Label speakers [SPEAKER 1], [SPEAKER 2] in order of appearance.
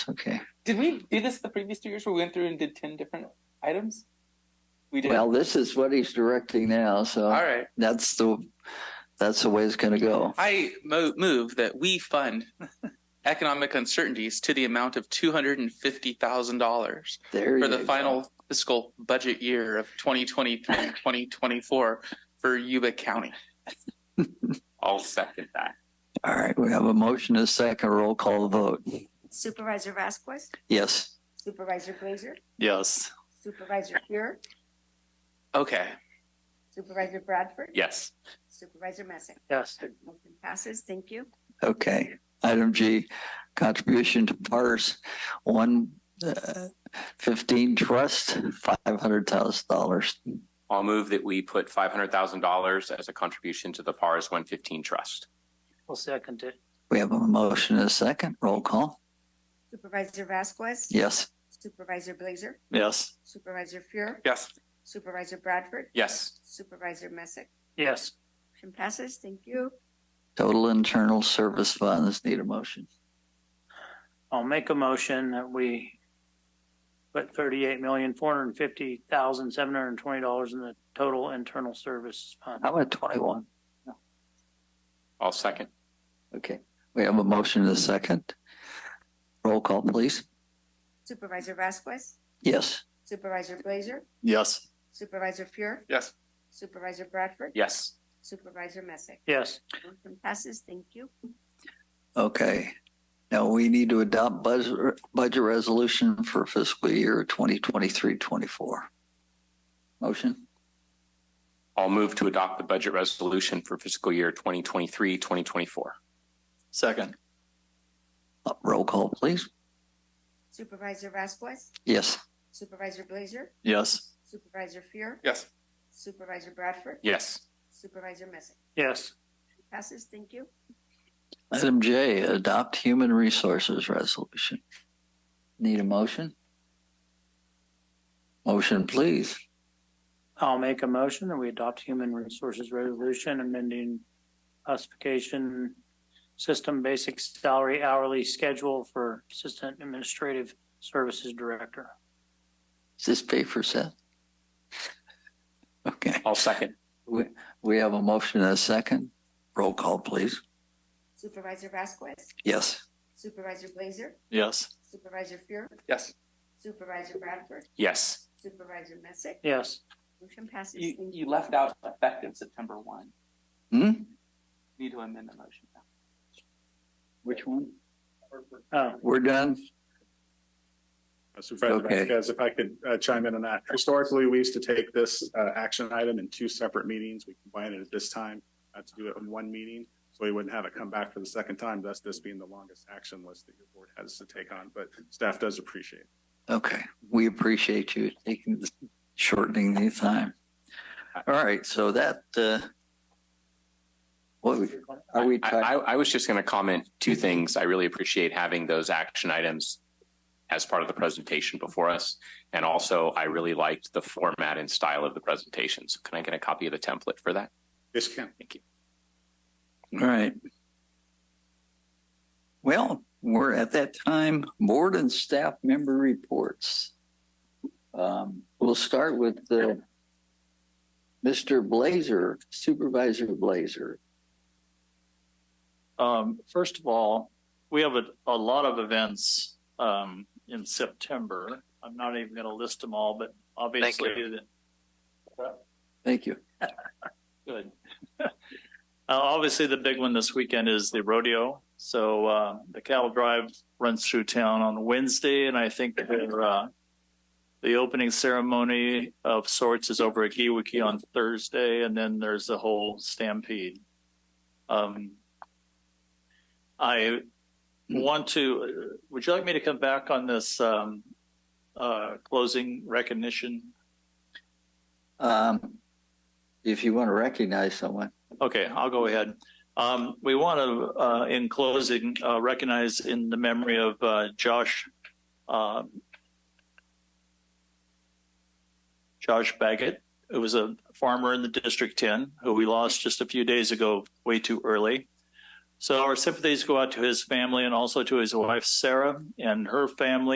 [SPEAKER 1] Okay.
[SPEAKER 2] Did we do this the previous two years where we went through and did 10 different items? We did.
[SPEAKER 1] Well, uh, this is what he's directing now,
[SPEAKER 2] All
[SPEAKER 1] so
[SPEAKER 2] right.
[SPEAKER 1] that's the, that's the way it's gonna go.
[SPEAKER 2] I mo- move that we fund economic uncertainties to the amount of $250,000
[SPEAKER 1] There
[SPEAKER 2] for
[SPEAKER 1] you
[SPEAKER 2] the
[SPEAKER 1] go.
[SPEAKER 2] final fiscal budget year of 2023-2024 for Yuba County.
[SPEAKER 3] I'll second that.
[SPEAKER 1] All right, we have a motion, and a second roll call vote.
[SPEAKER 4] Supervisor Vasquez,
[SPEAKER 1] Yes.
[SPEAKER 4] Supervisor Blazer,
[SPEAKER 3] Yes.
[SPEAKER 4] Supervisor Fuhrer,
[SPEAKER 2] Okay.
[SPEAKER 4] Supervisor Bradford,
[SPEAKER 3] Yes.
[SPEAKER 4] Supervisor Messick.
[SPEAKER 2] Yes.
[SPEAKER 4] Motion passes. Thank you.
[SPEAKER 1] Okay, item G, contribution to PARS one uh, fifteen trust, five hundred thousand dollars.
[SPEAKER 3] I'll move that we put five hundred thousand dollars as a contribution to the PARS one fifteen trust.
[SPEAKER 5] I'll second it.
[SPEAKER 1] We have a motion, and a second roll call.
[SPEAKER 4] Supervisor Vasquez.
[SPEAKER 1] Yes.
[SPEAKER 4] Supervisor Blazer,
[SPEAKER 3] Yes.
[SPEAKER 4] Supervisor Fuhrer,
[SPEAKER 2] Yes.
[SPEAKER 4] Supervisor Bradford,
[SPEAKER 3] Yes.
[SPEAKER 4] Supervisor Messick.
[SPEAKER 5] Yes,
[SPEAKER 4] Motion passes. Thank you.
[SPEAKER 1] Total internal service funds need a motion.
[SPEAKER 5] I'll make a motion that we put thirty-eight million, four hundred and fifty thousand, seven hundred and twenty dollars in the total internal service fund.
[SPEAKER 1] How about twenty-one?
[SPEAKER 3] I'll second.
[SPEAKER 1] Okay, we have a motion, and a second. Roll call, please.
[SPEAKER 4] Supervisor Vasquez,
[SPEAKER 1] Yes.
[SPEAKER 4] Supervisor Blazer,
[SPEAKER 1] Yes.
[SPEAKER 4] Supervisor Fuhrer,
[SPEAKER 2] Yes.
[SPEAKER 4] Supervisor Bradford,
[SPEAKER 3] Yes.
[SPEAKER 4] Supervisor Messick.
[SPEAKER 5] Yes,
[SPEAKER 4] Motion passes. Thank you.
[SPEAKER 1] Okay. Now we need to adopt budget, budget resolution for fiscal year 2023, 24. Motion,
[SPEAKER 3] I'll move to adopt the budget resolution for fiscal year 2023, 2024. Second.
[SPEAKER 1] Uh, roll call, please.
[SPEAKER 4] Supervisor Vasquez,
[SPEAKER 1] Yes.
[SPEAKER 4] Supervisor Blazer,
[SPEAKER 3] Yes.
[SPEAKER 4] Supervisor Fuhrer,
[SPEAKER 2] Yes.
[SPEAKER 4] Supervisor Bradford,
[SPEAKER 3] Yes.
[SPEAKER 4] Supervisor Messick.
[SPEAKER 5] yes,
[SPEAKER 4] Passes, thank you.
[SPEAKER 1] Item J, adopt human resources resolution. Need a motion? Motion, please.
[SPEAKER 5] I'll make a motion that we adopt human resources resolution amending classification system basic salary hourly schedule for assistant administrative services director.
[SPEAKER 1] Is this pay for Seth? Okay.
[SPEAKER 3] I'll second.
[SPEAKER 1] We, we have a motion and a second. Roll call, please.
[SPEAKER 4] Supervisor Vasquez,
[SPEAKER 1] Yes.
[SPEAKER 4] Supervisor Blazer,
[SPEAKER 3] Yes.
[SPEAKER 4] Supervisor Fuhrer,
[SPEAKER 2] Yes.
[SPEAKER 4] Supervisor Bradford,
[SPEAKER 3] Yes.
[SPEAKER 4] Supervisor Messick.
[SPEAKER 5] Yes,
[SPEAKER 4] Motion passes.
[SPEAKER 2] You,
[SPEAKER 4] Thank
[SPEAKER 2] you left out effective September 1.
[SPEAKER 1] Hmm?
[SPEAKER 2] Need to amend the motion.
[SPEAKER 1] Which one?
[SPEAKER 5] oh,
[SPEAKER 1] We're done?
[SPEAKER 6] Supervisor
[SPEAKER 1] Okay.
[SPEAKER 6] Uh, Vasquez, if I could uh, chime in on that. Historically, we used to take this uh, action item in two separate meetings. We combined it at this time uh, to do it in one meeting. So we wouldn't have it come back for the second time, thus this being the longest action list that your board has to take on. But staff does appreciate it.
[SPEAKER 1] Okay, we appreciate you taking, the- shortening the time. All right, so that, uh, what, we- are we,
[SPEAKER 3] I,
[SPEAKER 1] talk-
[SPEAKER 3] I, I was just going to comment two things. I really appreciate having those action items as part of the presentation before us. And also, I really liked the format and style of the presentation. So can I get a copy of the template for that?
[SPEAKER 6] Yes, Ken?
[SPEAKER 3] Thank you.
[SPEAKER 1] all right. Well, we're at that time, board and staff member reports. Um, we'll start with the Mr. Blazer, Supervisor Blazer.
[SPEAKER 7] Um, first of all, we have a, a lot of events, um, in September. I'm not even gonna list them all, but obviously. the-
[SPEAKER 1] Thank you.
[SPEAKER 7] Good. Uh, obviously, the big one this weekend is the rodeo. So, uh, the cattle drive runs through town on Wednesday and I think their, uh, the opening ceremony of sorts is over at Giwiki on Thursday and then there's the whole stampede. Um, I want to, would you like me to come back on this um, uh, closing recognition?
[SPEAKER 1] Um, if you want to recognize someone,
[SPEAKER 7] Okay, I'll go ahead. Um, we want to, uh, in closing, uh, recognize in the memory of, uh, Josh, um, Josh Baggett, who was a farmer in the District Ten, who we lost just a few days ago, way too early. So our sympathies go out to his family and also to his wife, Sarah, and her family.